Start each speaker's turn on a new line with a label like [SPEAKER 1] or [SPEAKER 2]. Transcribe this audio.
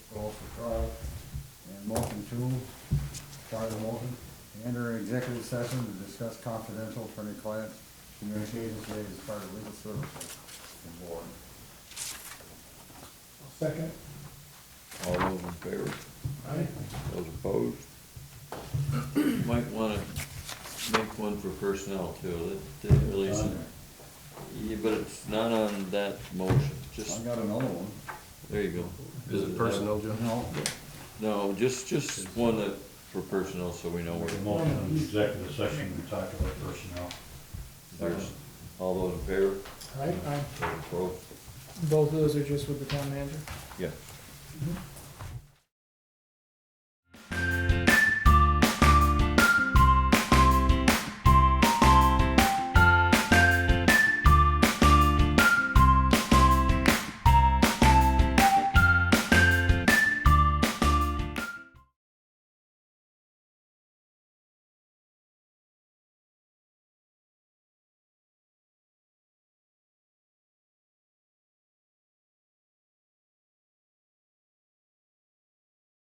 [SPEAKER 1] two, Charlie Walton, enter executive session to discuss confidential attorney-client communications made as part of legal services board.
[SPEAKER 2] Second.
[SPEAKER 3] All those in favor?
[SPEAKER 2] Aye.
[SPEAKER 3] Those opposed? Might wanna make one for personnel too, that didn't really, yeah, but it's not on that motion,
[SPEAKER 1] I
[SPEAKER 3] just,
[SPEAKER 1] got another one.
[SPEAKER 3] there you go.
[SPEAKER 4] Is it personnel, Joe?
[SPEAKER 1] No,
[SPEAKER 3] No, just, just one that, for personnel, so we know
[SPEAKER 5] Make a
[SPEAKER 3] where,
[SPEAKER 5] motion in executive session, we talk about personnel.
[SPEAKER 3] there's, all those in favor?
[SPEAKER 2] Aye, aye.
[SPEAKER 3] Those opposed?
[SPEAKER 2] Both of those are just with the town manager?
[SPEAKER 3] Yeah.